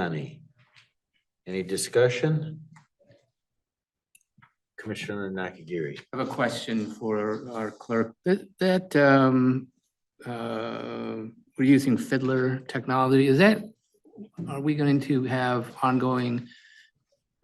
Yanni. Any discussion? Commissioner Nakagiri. I have a question for our clerk. That, that, um, uh, we're using Fiddler technology, is that, are we going to have ongoing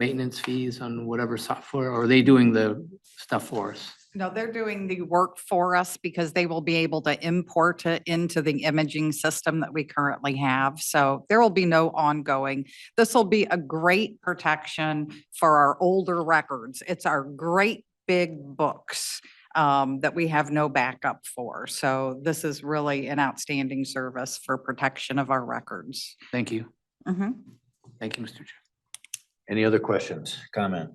maintenance fees on whatever software, or are they doing the stuff for us? No, they're doing the work for us because they will be able to import it into the imaging system that we currently have. So there will be no ongoing. This will be a great protection for our older records. It's our great big books um, that we have no backup for. So this is really an outstanding service for protection of our records. Thank you, Mhm. thank you, Mr. Chair. Any other questions, comment?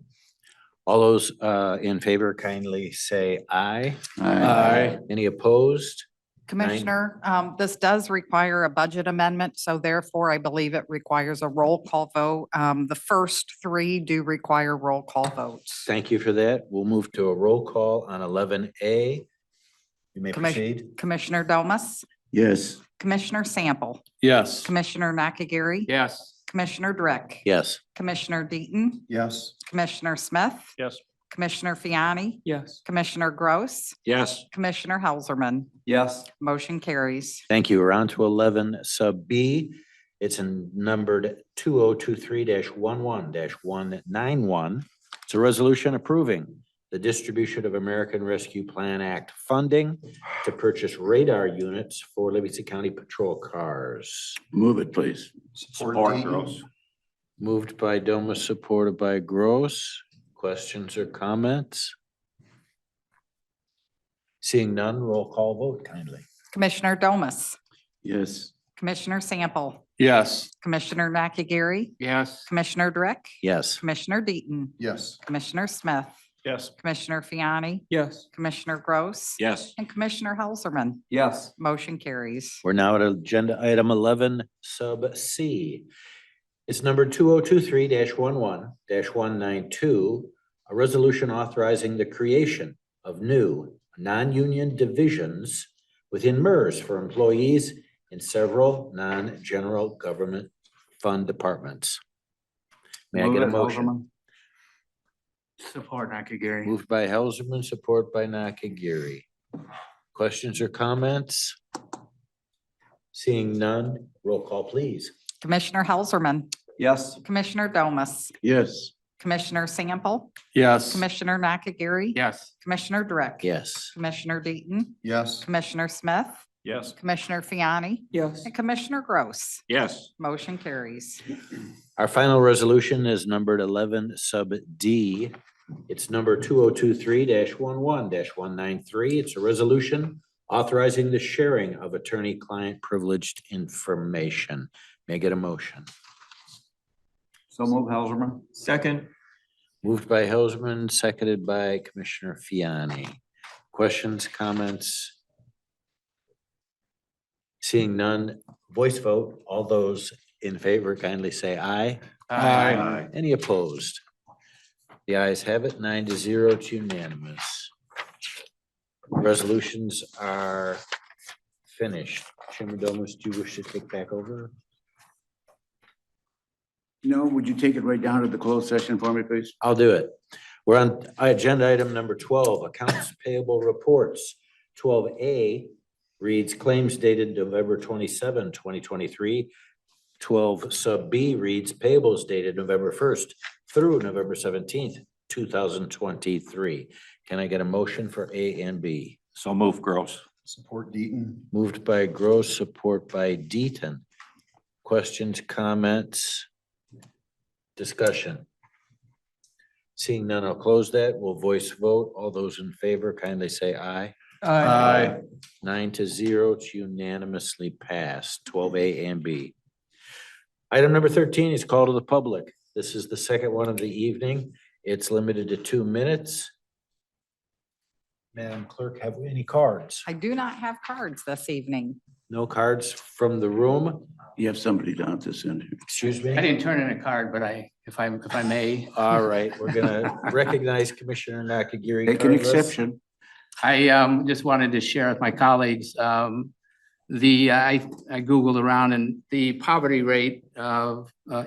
All those uh, in favor kindly say aye. Any opposed? Commissioner, um, this does require a budget amendment, so therefore I believe it requires a roll call vote. Um, the first three do require roll call votes. Thank you for that. We'll move to a roll call on eleven A. You may Commis- proceed. Commissioner Domas, Yes. Commissioner Sample, Yes. Commissioner Nakagiri, Yes. Commissioner Drick, Yes, Commissioner Deaton, Yes. Commissioner Smith, Yes. Commissioner Fiani, Yes. Commissioner Gross, Yes. Commissioner Helserman. Yes. Motion carries. thank you. We're on to eleven sub B. It's in numbered two oh two three 11 one nine one. It's a resolution approving the distribution of American Rescue Plan Act funding to purchase radar units for Livingston County patrol cars. Move it, please. Support Gross. Moved by Domas, supported by Gross. Questions or comments? Seeing none, roll call vote kindly. Commissioner Domas, Yes. Commissioner Sample, Yes. Commissioner Nakagiri, Yes. Commissioner Drick, Yes, Commissioner Deaton, Yes. Commissioner Smith, Yes. Commissioner Fiani, Yes. Commissioner Gross. Yes. And Commissioner Helserman. Yes. Motion carries. we're now at agenda item eleven sub C. It's number two oh two three 11 one nine two. A resolution authorizing the creation of new non-union divisions within MERS for employees in several non-general government fund departments. May I get a motion? Support Nakagiri. Moved by Helserman, support by Nakagiri. Questions or comments? Seeing none, roll call please. Commissioner Helserman, Yes. Commissioner Domas, Yes. Commissioner Sample, Yes. Commissioner Nakagiri. Yes. Commissioner Drick. Yes, Commissioner Deaton, Yes. Commissioner Smith, Yes. Commissioner Fiani, Yes. and Commissioner Gross. Yes. Motion carries. our final resolution is numbered eleven sub D. It's number two oh two three 11 one nine three. It's a resolution authorizing the sharing of attorney-client privileged information. May I get a motion? So move Helserman. Second. Moved by Helserman, seconded by Commissioner Fiani. Questions, comments? Seeing none, voice vote. All those in favor kindly say aye. Aye. Any opposed? The ayes have it, nine to zero, it's unanimous. Resolutions are finished. Chairman Domas, do you wish to take back over? No, would you take it right down to the closed session for me, please? I'll do it. We're on agenda item number twelve, accounts payable reports. Twelve A reads claims dated November 27, 2023. Twelve sub B reads payables dated November first through November seventeenth, two thousand twenty-three. Can I get a motion for A and B? So move Gross. Support Deaton. Moved by Gross, support by Deaton. Questions, comments? Discussion? Seeing none, I'll close that. We'll voice vote. All those in favor kindly say aye. Aye. Nine to zero, it's unanimously passed, twelve A and B. Item number thirteen is call to the public. This is the second one of the evening. It's limited to two minutes. Madam Clerk, have we any cards? I do not have cards this evening. No cards from the room, You have somebody down at this end. here. excuse I me. didn't turn in a card, but I, if I, if I may, All right, we're gonna recognize Commissioner Nakagiri. Make an Carlos. exception. I um just wanted to share with my colleagues um the, I I Googled around and the poverty rate of uh,